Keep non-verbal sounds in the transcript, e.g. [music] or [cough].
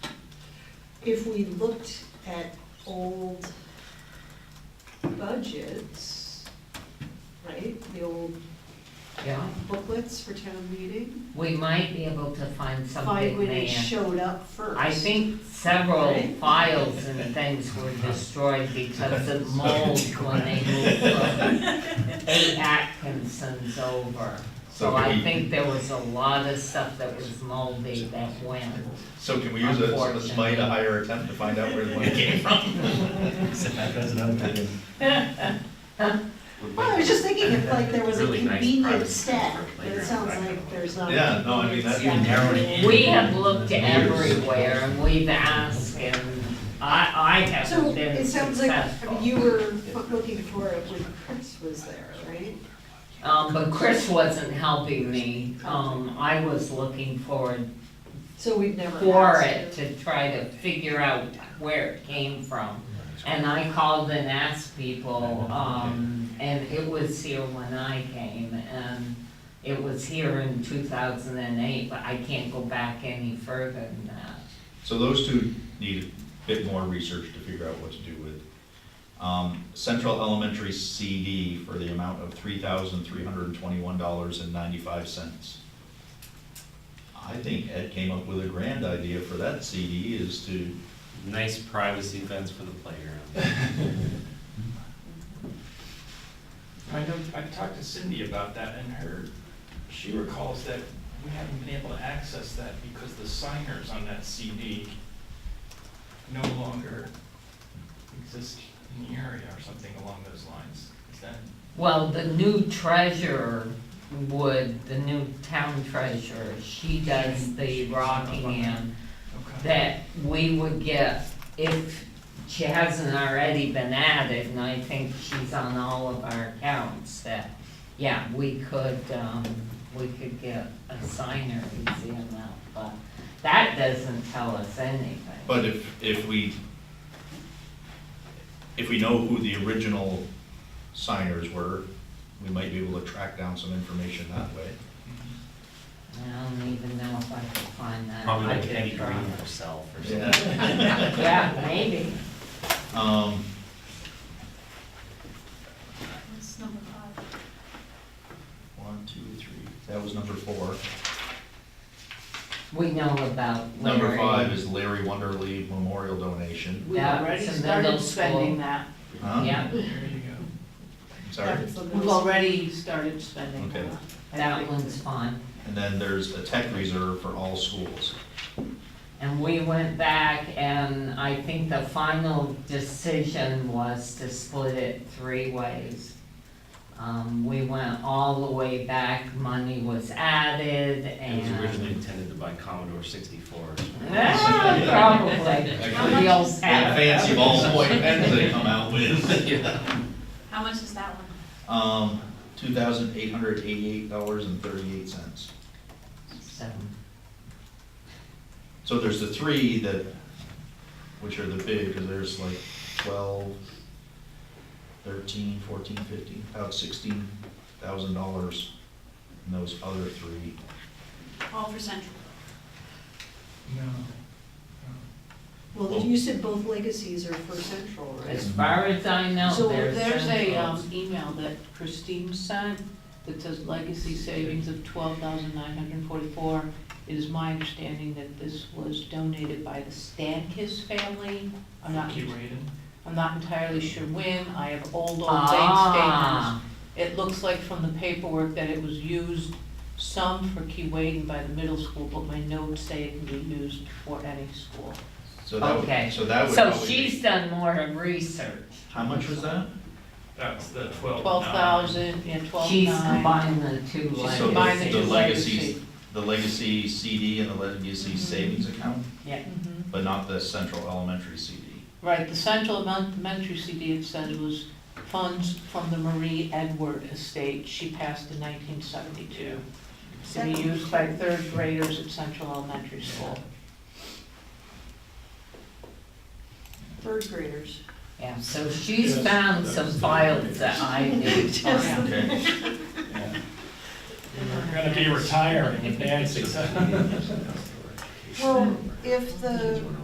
if we looked at old budgets, right, the old Yeah, booklets for town meeting, we might be able to find find something when it there. showed up first. Oh, I think several Right? files and things were destroyed because of mold when they moved from A. Atkinson's over. So So can I we- think there was a lot of stuff that was moldy that went. So can we use a, a smite, a higher attempt to find out where the money came from? That's another thing. Well, I Oh, was just thinking if like there was a Really nice convenient private stack, for but it playground, sounds I like don't there's not. a Yeah, no, I mean, convenient that's- stack. You narrowed it in. We have looked everywhere and we've asked and I, I So haven't been it sounds like, I mean, successful. you were looking for it when Chris was there, right? Um, but Chris wasn't helping me. Um, I was looking forward So we've never. for asked it to try to figure out where it came from. [laughs] And I called and asked people, um, and it was here when I came, and it was here in two thousand and eight, but I can't go back any further than that. So those two need a bit more research to figure out what to do with. Um, Central Elementary CD for the amount of three thousand three hundred and twenty-one dollars and ninety-five cents. I think Ed came up with a grand idea for that CD is to, Nice privacy fence for the playground. I know, I talked to Cindy about that and her, she recalls that we haven't been able to access that because the signers on that CD no longer exist in the area or something along those lines. Is that, Well, the new treasurer would, the new town treasurer, she does the Rockingham okay? that we would get if she hasn't already been added, and I think she's on all of our accounts, that, yeah, we could, um, we could get a signer easy enough, but that doesn't tell us anything. but if, if we, if we know who the original signers were, we might be able to track down some information that [laughs] way. I don't even know if I could find that. Probably I like could Eddie try. Green herself or Yeah. something. Yeah, maybe. Um, That's number five. One, two, three, that was number four. We know about Larry. Number five is Larry Wonderly Memorial Donation. We Yeah, already it's a started middle school. spending that. Huh? Yeah, There you go. Sorry. That's the We've most- already started spending Okay. that. that one's fine. And then there's a tech reserve for all schools. And we went back and I think the final decision was to split it three ways. Um, we went all the way back, money was added It was originally and. intended to buy Commodore sixty-four. Ah, [laughs] Probably. much The old is- That app. fancy ballpoint pens they come out with. How much is that one? Um, two thousand eight hundred eighty-eight dollars and thirty-eight cents. So, So there's the three that, which are the big, because there's like twelve, thirteen, fourteen, fifteen, about sixteen thousand dollars in those other three. All for Central. No. Well, you said both legacies are for Central, right? As far as I know, So there's. there's a, centrals. um, email that Christine sent that says legacy savings of twelve thousand nine hundred and forty-four. It is my understanding that this was donated by the Stankis family. I'm not, Keep reading. I'm not entirely sure when. I have old, old bank statements. Ah, It looks like from the paperwork that it was used some for Keewatin by the middle school, but my notes say it can be used for any school. So that Okay. would, so that would so probably be- she's done more of research. How much was that? That's the twelve. Twelve thousand, yeah, twelve She's nine. combined the two She's letters. combined the the two legacy- legacies. The legacy CD and the legacy Mhm. savings account, Mhm. but not the central elementary CD. Right, the central elementary CD it says was funds from the Marie Edward estate. She passed in nineteen seventy-two. To be used by third graders at Central Elementary School. Third graders. Yeah, so she's Yes, found that's some the- files that I [laughs] didn't find. Mm-hmm. Okay, We're [laughs] gonna [laughs] be retiring if Nancy's. Well, if the